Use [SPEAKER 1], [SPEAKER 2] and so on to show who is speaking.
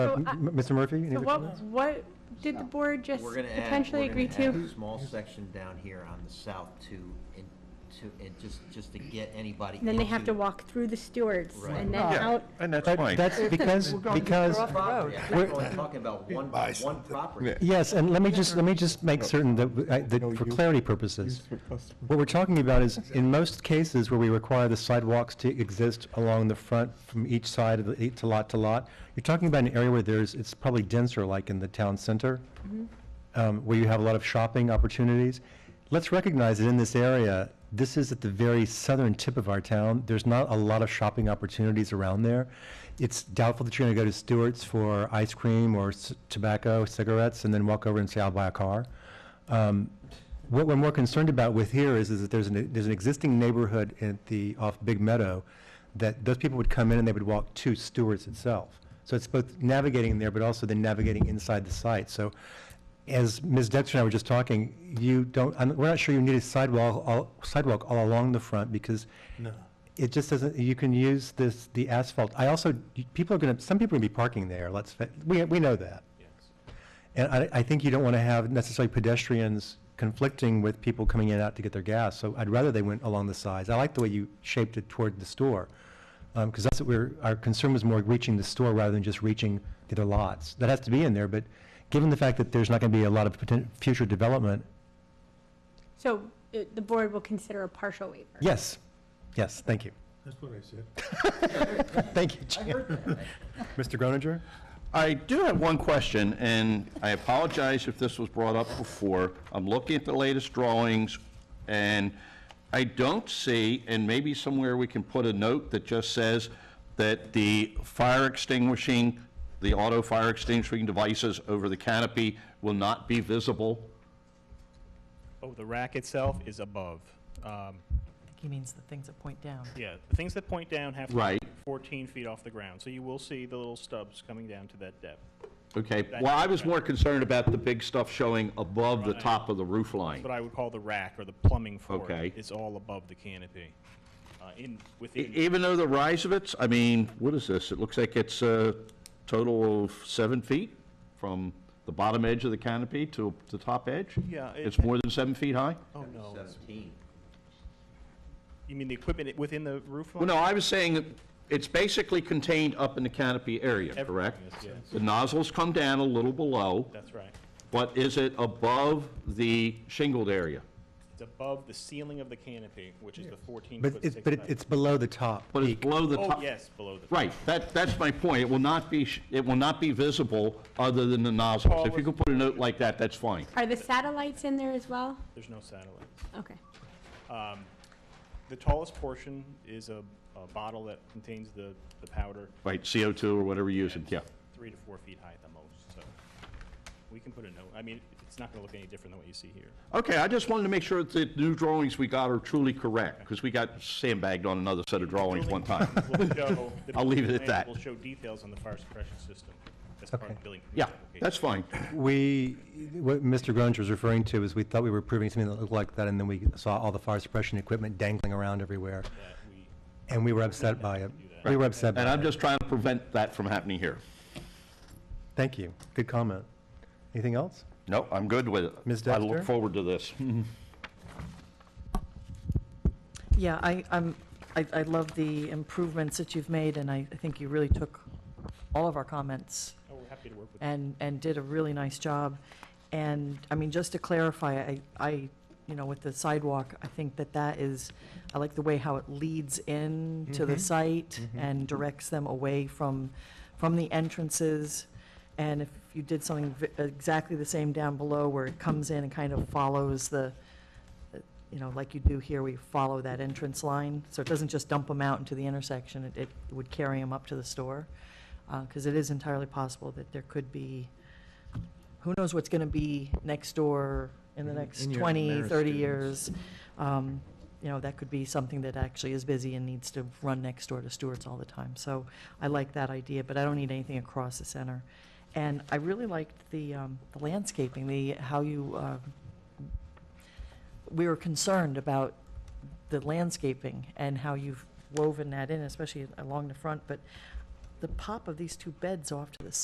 [SPEAKER 1] Uh,
[SPEAKER 2] So
[SPEAKER 1] m-
[SPEAKER 2] I-
[SPEAKER 1] m- Mr. Murphy? any
[SPEAKER 2] So
[SPEAKER 1] other
[SPEAKER 2] what,
[SPEAKER 1] comments?
[SPEAKER 2] what did the board just
[SPEAKER 3] We're gonna add-
[SPEAKER 2] potentially
[SPEAKER 3] we're gonna
[SPEAKER 2] agree
[SPEAKER 3] add
[SPEAKER 2] to?
[SPEAKER 3] a Small section down here on the south to, in- to, and just, just to get anybody.
[SPEAKER 2] And then they have to
[SPEAKER 3] into
[SPEAKER 2] walk through the stewards
[SPEAKER 3] Right.
[SPEAKER 2] and then
[SPEAKER 4] Yeah,
[SPEAKER 2] out,
[SPEAKER 4] and that's
[SPEAKER 1] But
[SPEAKER 4] fine.
[SPEAKER 1] That's because, because,
[SPEAKER 3] the property.
[SPEAKER 1] We're-
[SPEAKER 3] I think we're only talking about one, one property.
[SPEAKER 1] yes, and let me just, let me just make certain that, w- I- that for clarity purposes, what we're talking about is, in most cases where we require the sidewalks to exist along the front from each side of the, to lot to lot, you're talking about an area where there's, it's probably denser, like in the town center, um, where you have a lot of shopping opportunities. Let's recognize that in this area, this is at the very southern tip of our town. There's not a lot of shopping opportunities around there. It's doubtful that you're going to go to Stewart's for ice cream or c- tobacco, cigarettes, and then walk over and say, I'll buy a car. Um, What we're more concerned about with here is, is that there's an, there's an existing neighborhood at the, off Big Meadow, that those people would come in and they would walk to Stewart's itself. So it's both navigating there, but also then navigating inside the site. So as Ms. Dexter and I were just talking, you don't, I'm- we're not sure you need a sidewalk, all- sidewalk all along the front because it just doesn't, you can use this, the asphalt. I also, people are going to, some people are going to be parking there, let's, fa- we, we know that. And I, I think you don't want to have necessarily pedestrians conflicting with people coming in and out to get their gas. So I'd rather they went along the sides. I like the way you shaped it toward the store. Because that's what we're, our concern was more reaching the store rather than just reaching the other lots. That has to be in there, but given the fact that there's not going to be a lot of poten- future development,
[SPEAKER 2] so it- the board will consider a partial waiver.
[SPEAKER 1] yes, yes, thank you.
[SPEAKER 5] That's what I said.
[SPEAKER 1] Thank you, Jim. Mr. Groninger?
[SPEAKER 4] I do have one question, and I apologize if this was brought up before. I'm looking at the latest drawings, and I don't see, and maybe somewhere we can put a note that just says that the fire extinguishing, the auto fire extinguishing devices over the canopy will not be visible.
[SPEAKER 6] Oh, the rack itself is above. Um,
[SPEAKER 7] He means the things that point down.
[SPEAKER 6] yeah, the things that point down have to
[SPEAKER 4] Right.
[SPEAKER 6] be 14 feet off the ground, so you will see the little stubs coming down to that depth.
[SPEAKER 4] Okay, well, I was more concerned about the big stuff showing above the
[SPEAKER 6] Right.
[SPEAKER 4] top of the roof
[SPEAKER 6] That's
[SPEAKER 4] line.
[SPEAKER 6] what I would call the rack or the plumbing for it.
[SPEAKER 4] Okay.
[SPEAKER 6] It's all above the canopy. Uh, in
[SPEAKER 4] E-
[SPEAKER 6] within
[SPEAKER 4] Even though the rise of it's, I mean, what is this? It looks like it's a total of seven feet from the bottom edge of the canopy to the top edge?
[SPEAKER 6] Yeah, it-
[SPEAKER 4] It's more than seven feet high?
[SPEAKER 6] oh no,
[SPEAKER 3] Seventeen.
[SPEAKER 6] you mean the equipment i- within the roof
[SPEAKER 4] Well,
[SPEAKER 6] line?
[SPEAKER 4] no, I was saying it's basically contained up in the canopy area, correct?
[SPEAKER 6] Everything is, yes.
[SPEAKER 4] The nozzles come down a little below,
[SPEAKER 6] That's right.
[SPEAKER 4] but is it above the shingled area?
[SPEAKER 6] It's above the ceiling of the canopy, which is the 14
[SPEAKER 1] But
[SPEAKER 6] foot
[SPEAKER 1] it's,
[SPEAKER 6] six
[SPEAKER 1] but it-
[SPEAKER 6] height.
[SPEAKER 1] it's below the top.
[SPEAKER 4] But it's
[SPEAKER 1] peak.
[SPEAKER 4] below the top?
[SPEAKER 6] oh yes, below the
[SPEAKER 4] Right, that, that's my point. It will not be, sh- it will not be visible other than the nozzles. If you could put a note like that, that's fine.
[SPEAKER 2] Are the satellites in there as well?
[SPEAKER 6] There's no satellites.
[SPEAKER 2] Okay.
[SPEAKER 6] The tallest portion is a, a bottle that contains the, the powder.
[SPEAKER 4] Right, CO2 or whatever you're using, yeah.
[SPEAKER 6] three to four feet high at the most, so we can put a note, I mean, it's not gonna look any different than what you see here.
[SPEAKER 4] Okay, I just wanted to make sure that the new drawings we got are truly correct, because we got sandbagged on another set of drawings one time.
[SPEAKER 6] We'll show- the
[SPEAKER 4] I'll leave it at
[SPEAKER 6] plan
[SPEAKER 4] that.
[SPEAKER 6] Will show details on the fire suppression system as part of the
[SPEAKER 1] Okay.
[SPEAKER 6] building. permit
[SPEAKER 4] Yeah,
[SPEAKER 6] application.
[SPEAKER 4] that's fine.
[SPEAKER 1] We, what Mr. Groninger was referring to is we thought we were approving something that looked like that, and then we saw all the fire suppression equipment dangling around everywhere,
[SPEAKER 6] That we,
[SPEAKER 1] and we were upset by it. We were upset
[SPEAKER 4] And
[SPEAKER 1] by
[SPEAKER 4] I'm
[SPEAKER 1] it.
[SPEAKER 4] just trying to prevent that from happening here.
[SPEAKER 1] Thank you. Good comment. Anything else?
[SPEAKER 4] No, I'm good with it.
[SPEAKER 1] Ms.
[SPEAKER 4] I
[SPEAKER 1] Dexter?
[SPEAKER 4] look forward to this.
[SPEAKER 7] Yeah, I, I'm, I, I love the improvements that you've made, and I, I think you really took all of our comments
[SPEAKER 6] oh, we're happy to work with,
[SPEAKER 7] and, and did a really nice job. And, I mean, just to clarify, I, I, you know, with the sidewalk, I think that that is, I like the way how it leads in to the site and directs them away from, from the entrances. And if you did something v- exactly the same down below where it comes in and kind of follows the, you know, like you do here, we follow that entrance line. So it doesn't just dump them out into the intersection, it, it would carry them up to the store. Because it is entirely possible that there could be, who knows what's going to be next door in the next 20, 30 years. Um, You know, that could be something that actually is busy and needs to run next door to Stewart's all the time. So I like that idea, but I don't need anything across the center. And I really liked the um, the landscaping, the, how you um, we were concerned about the landscaping and how you've woven that in, especially along the front, but the pop of these two beds off to the